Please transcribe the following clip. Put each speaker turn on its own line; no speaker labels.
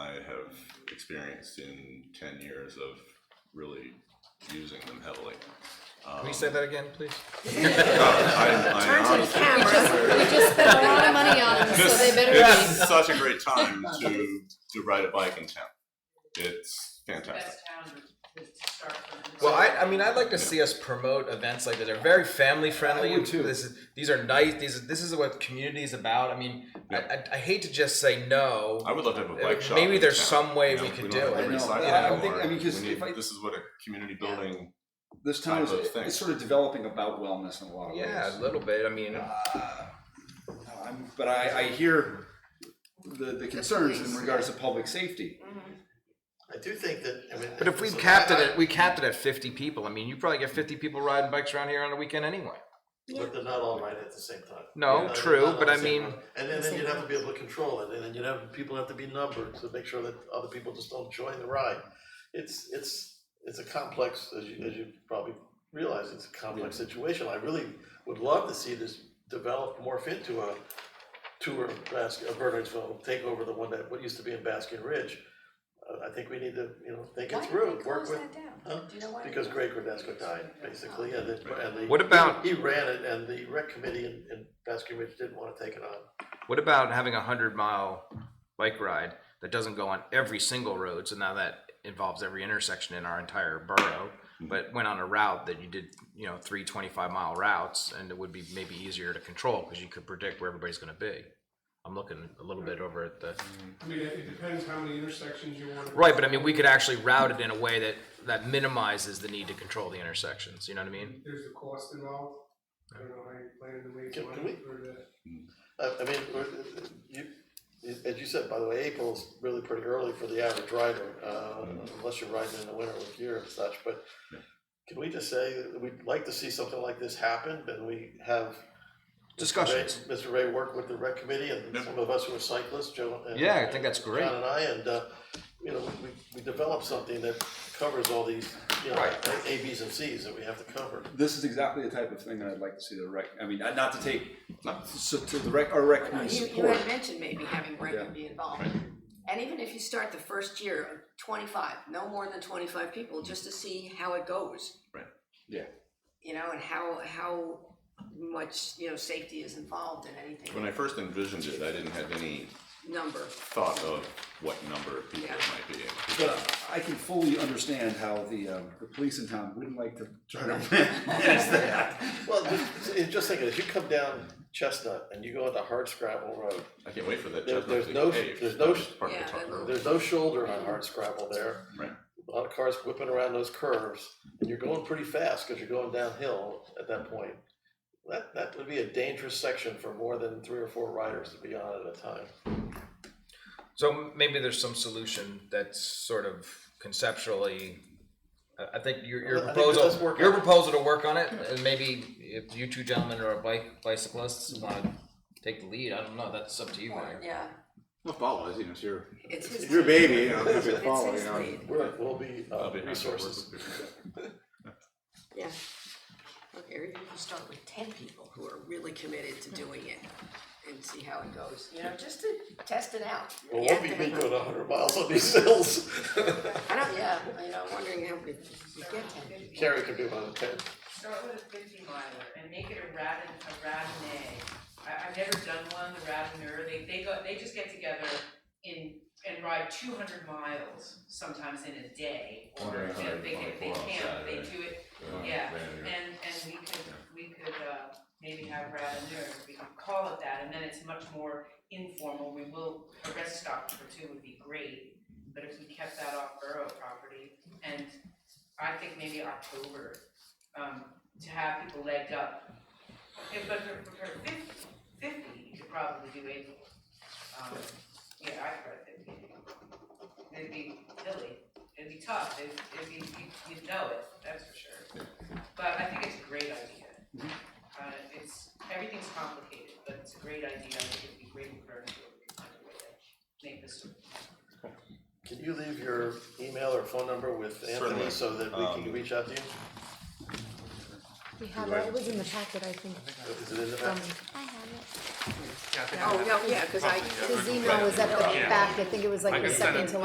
experienced in ten years of really using them heavily. Um,
Can you say that again, please?
Turn to the
Turn
camera.
We just spent a lot of money on them, so they better be.
It's such a great time to, to ride a bike in town. It's fantastic.
best town to to start from.
Well, I, I mean, I'd like to see us promote events like that. They're very family friendly.
I would too.
This is, these are nice. These this is what community is about. I mean, I, I, I hate to just say no.
I would love to have a bike shop.
Maybe
in
there's
town.
some way
You know,
we could
don't have
do it.
Liberty
I know.
sidewalk
Yeah, I think- I
anymore.
mean, 'cause
We need-
if I-
This is what a community building,
This town is
type of thing.
it's sort of developing about wellness in a lot of
Yeah, a
ways.
little bit. I mean,
Um, but I, I hear the, the concerns in regards to public safety.
I do think that, I mean.
but if we
so
capped it,
I-
at, we capped it at 50 people. I mean, you probably get 50 people riding bikes around here on a weekend anyway.
But they're not all right at the same time.
No,
They're not-
true,
they're not
but
all
I
the same
mean-
time. And then, then you'd have to be able to control it, and then you'd have, people have to be numbered to make sure that other people just don't join the ride. It's, it's, it's a complex, as you, as you probably realize, it's a complex situation. I really would love to see this develop, morph into a tour of Baskin, of Bernardsville, take over the one that, what used to be in Baskin Ridge. Uh, I think we need to, you know, think it through, work with. Huh? Because Greg Gradesco died, basically, and it, and the.
What about-
He ran it, and the rec committee in, in Baskin Ridge didn't wanna take it on.
What about having a hundred mile bike ride that doesn't go on every single road? So now that involves every intersection in our entire borough, but went on a route that you did, you know, three 25 mile routes, and it would be maybe easier to control because you could predict where everybody's going to be. I'm looking a little bit over at the
I mean, it it depends how many intersections you want.
right, but I mean, we could actually route it in a way that that minimizes the need to control the intersections. You know what I mean?
There's the cost involved. I don't know how you plan to make
Can- can
money
we-
for the.
I, I mean, we're- you, as you said, by the way, April's really pretty early for the average rider, uh, unless you're riding in the winter with gear and such, but can we just say, that we'd like to see something like this happen, and we have
Discussions.
Ray- Mr. Ray worked with the rec committee and
Yeah.
some of us who are cyclists, Joe. and-
Yeah, I think that's great.
John and I, and, uh, you know, we, we developed something that covers all these, you know,
Right.
A, Bs and Cs that we have to cover.
This is exactly the type of thing that I'd like to see the rec, I mean, not not to take, not so to the rec, our rec committee
You, you
support.
had mentioned maybe having Rankin be involved. And even if you start the first year, twenty-five, no more than twenty-five people, just to see how it goes.
Right.
Yeah.
You know, and how, how much, you know, safety is involved in
when
anything,
I first envisioned it, I didn't have any
number.
thought of what number of people it might be.
But I can fully understand how the, um, the police in town wouldn't like to try to manage that.
Well, just, it- just think, of it, if you come down Chestnut and you go onto hard scrabble road,
I can't wait for that
There-
chestnut
there's
to
no-
cave.
there's no-
That was part of the
Yeah,
talk
that-
earlier.
there's no shoulder on hard scrabble there.
Right.
A lot of cars whipping around those curves, and you're going pretty fast because you're going downhill at that point. That, that would be a dangerous section for more than three or four riders to be on at a time.
So maybe there's some solution that's sort of conceptually, I, I think your, your
I think
proposal,
let's work
your
on it.
proposal to work on it, and maybe if you two gentlemen are bike, bicyclists wanna take the lead, I don't know, that's up to you, Mayor.
Yeah,
Well, follow us, you know, it's your,
it's his.
your
lead.
baby, you know, it's your
It's
follow,
his
you know.
lead.
We're, we'll be uh,
I'll be happy to work
resources.
with you.
Yeah. Okay, or you can start with ten people who are really committed to doing it and see how it goes, you know, just to test it out.
Well,
You
won't
have
be
to
me
have a-
going hundred miles on these hills.
I don't, yeah, I know, I'm wondering how we we get ten.
Carrie could do one of ten.
Start with a fifty miler and make it a radin, a radinay. I, I've never done one, the radiner, they, they go, they just get together in, and ride two hundred miles sometimes in a day. Or, you know, they can, they camp, they do it, yeah, and, and we could, we could, uh, maybe have radiners, we could call it that, and then it's much more informal, we will, a rest stop for two would be great, but if we kept that off borough property, and I think maybe October um, to have people legged up. If, but for, for for fifty, fifty, you could probably do April. Um, yeah, I'd try fifty. It'd be hilly, it'd be tough, it'd, it'd be, you, you'd know it, that's for sure. But I think it's a great idea. Uh, it's, everything's complicated, but it's a great idea, I think it'd be great for everyone to find a way to make this work.
Can you leave your email or phone number with
Certainly.
Anthony so that we can
Um,
reach out to you?
We have it, it was in the packet, I think.
Is it in the back?
Um, I have it.
Oh, no, yeah, cause I,
His email was at the back, I think it was like the second to